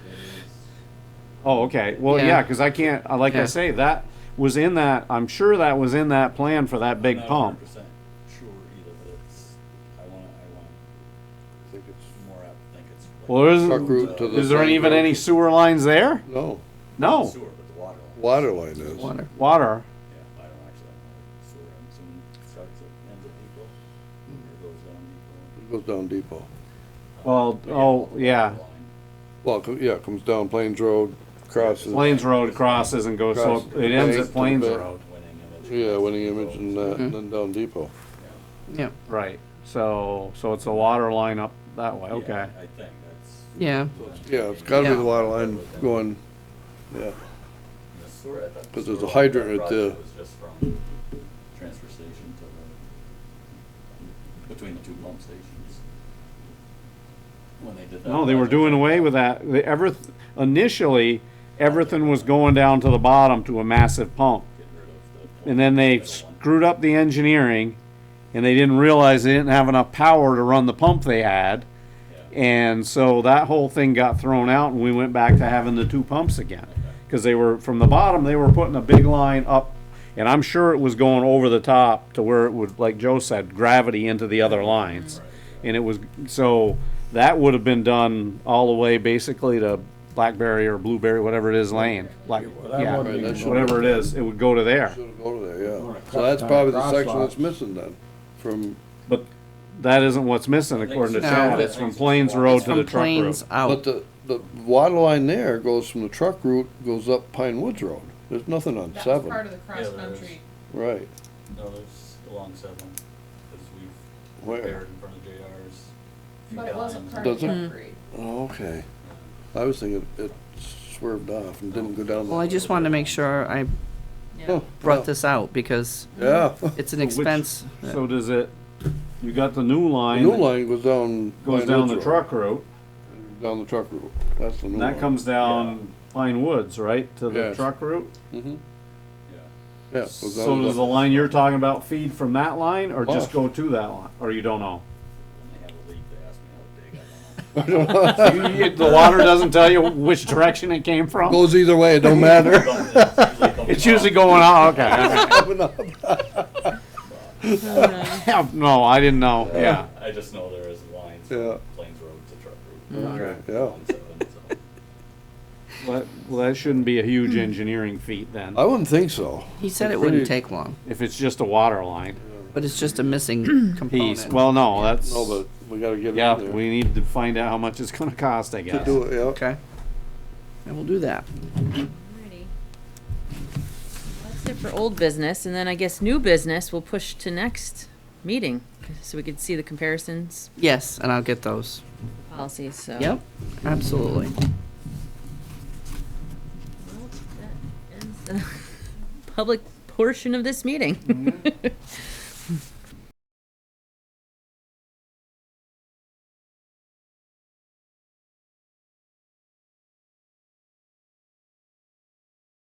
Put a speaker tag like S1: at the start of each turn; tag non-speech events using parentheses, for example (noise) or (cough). S1: Oh, okay. Well,
S2: Yeah.
S1: yeah, because I can't, uh, like I
S2: Yeah.
S1: say, that was in that, I'm sure that was in that plan for that big
S3: Not
S1: pump.
S3: 100% Sure either, but it's, I wanna, I wanna,
S4: I think it's
S3: more out, think it's. like
S1: Well, there
S4: truck
S1: isn't,
S4: route to the.
S1: is there
S4: thing,
S1: even
S4: no.
S1: any sewer lines there?
S4: No,
S3: not
S1: No,
S3: Sewer, but the water. line.
S4: water line is.
S2: Water.
S1: water.
S3: Yeah, I don't actually, know. sewer, I'm assuming starts at, ends at Depot, or goes down Depot.
S4: It goes down Depot.
S1: Well,
S3: But
S1: oh, yeah.
S3: water line.
S4: Well, it co- yeah, it comes down Plains Road, crosses.
S1: Plains Road crosses and goes, so
S4: Cross-
S1: it ends
S4: Plains
S1: at
S4: to
S1: Plains
S4: the-
S1: Road.
S3: Winning image.
S4: Yeah, winning image and, uh, and
S2: Mhm.
S4: then down Depot.
S2: Yeah,
S1: Right, so, so it's a water line up that way, okay.
S3: I think that's.
S2: yeah.
S4: Yeah, it's gotta be the
S2: Yeah.
S4: water line going, yeah,
S3: the sewer- I thought the
S4: 'Cause there's a
S3: sewer line
S4: hydrant
S3: that
S4: right
S3: project
S4: there.
S3: Was just from transfer station to the, between the two pump stations. When they did that.
S1: No, they were
S3: project.
S1: doing away with that. The ever, initially, everything was going down to the bottom to a massive pump.
S3: Get rid of the-
S1: And then they screwed up the engineering and they didn't realize they didn't have enough power to run the pump they had.
S3: Yeah.
S1: And so that whole thing got thrown out and we went back to having the two pumps again. Cause they were, from the bottom, they were putting a big line up and I'm sure it was going over the top to where it would, like Joe said, gravity into the other lines. And it was, so that would have been done all the way basically to Blackberry or Blueberry, whatever it is, Lane. Black,
S5: Well, that
S1: yeah,
S5: wouldn't
S4: Right, that
S5: be-
S4: should-
S1: whatever it is, it would go to there.
S4: should go to there, yeah.
S5: Wanna cut
S4: So that's
S5: down
S4: probably the
S5: cross
S4: section
S5: lots.
S4: that's missing then, from,
S1: But that isn't what's missing according to
S2: No.
S1: Chad. It's from Plains Road to the
S2: From
S1: truck
S2: Plains
S1: route.
S4: but
S2: out.
S4: the, the water line there goes from the truck route, goes up Pine Woods Road. There's nothing on
S6: That was part
S4: seven,
S6: of the
S3: Yeah, there
S6: cross-country.
S4: right.
S3: No, there's along seven, because we've
S4: Where?
S3: repaired in front of JR's. few
S6: But it wasn't
S3: times.
S6: part
S4: Does
S6: of
S4: it?
S6: the upgrade.
S4: Oh, okay. I was thinking it swerved off and didn't go down.
S2: Well, I just wanted to make sure I
S6: Yeah.
S4: Oh,
S2: brought this out because
S4: (laughs) Yeah,
S2: it's an
S1: Which-
S2: expense. that-
S1: So does it, you got the new
S4: the
S1: line.
S4: new
S1: that
S4: line goes down.
S1: Goes
S4: Pine
S1: down
S4: Woods
S1: the
S4: Road.
S1: truck route,
S4: Down the truck route, that's the new
S1: and
S4: line.
S1: that comes down Pine Woods, right, to the
S4: Yes.
S1: truck route?
S4: Mhm.
S3: Yeah.
S4: Yeah. goes
S1: So
S4: down
S1: does the line you're talking about feed from that line, or just
S4: Off.
S1: go to that line, or you don't
S4: (laughs)
S1: know?
S3: When they have a leak, they ask me how big I want.
S1: So you- you- The water doesn't tell you which direction it came from?
S4: Goes either way, it
S1: (laughs)
S4: don't matter. (laughs)
S3: (laughs)
S1: It's usually going out, okay. Yeah, (laughs) No, I didn't know, yeah.
S3: I just know there is lines
S4: Yeah.
S3: from Plains Road to Truck Road.
S1: Okay.
S4: Yeah,
S3: Along seven, so.
S1: Well, that shouldn't be a huge engineering feat then,
S4: I wouldn't think so.
S2: He said
S4: It's
S2: it wouldn't
S4: pretty-
S2: take long,
S1: if it's just a water line
S2: but it's just a
S1: (clears throat)
S2: missing
S1: piece.
S2: component.
S1: Well, no, that's,
S4: No, but we gotta get it in
S1: yeah,
S4: there.
S1: we need to find out how much it's gonna cost, I
S4: To
S1: guess.
S4: do it, yeah.
S2: Okay. I will do that.
S7: Alrighty. That's it for old business, and then I guess new business we'll push to next meeting, so we could see the comparisons
S2: Yes, and I'll get those.
S7: policies, so.
S2: Yep, absolutely.
S7: (laughs) Well, that ends the Public portion of this meeting.